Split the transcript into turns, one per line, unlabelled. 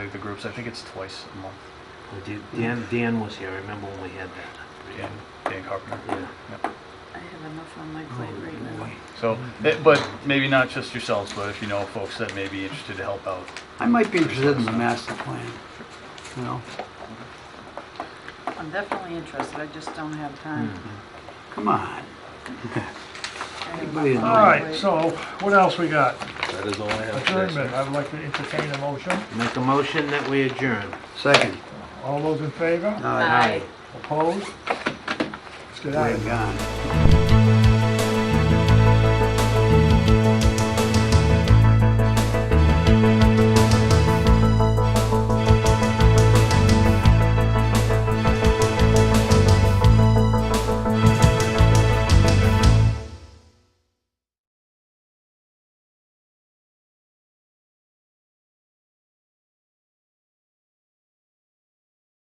the groups. I think it's twice a month.
Well, Dan- Dan, Dan was here, I remember when we had that.
Dan, Dan Carpenter.
Yeah.
I have enough on my plate right now.
So,
Mm-hmm.
eh, but maybe not just yourselves, but if you know folks that may be interested to help out.
I might be interested in the master plan, you know?
I'm definitely interested, I just don't have time.
Come on.
I have enough
Anybody
on
All
my
right,
plate.
so what else we got?
That is all I have. for this.
Adjournment, I would like to entertain a motion.
Make a motion that we adjourn.
Second.
All those in favor?
Now
Aye.
Opposed? Let's get out of here.
we're gone.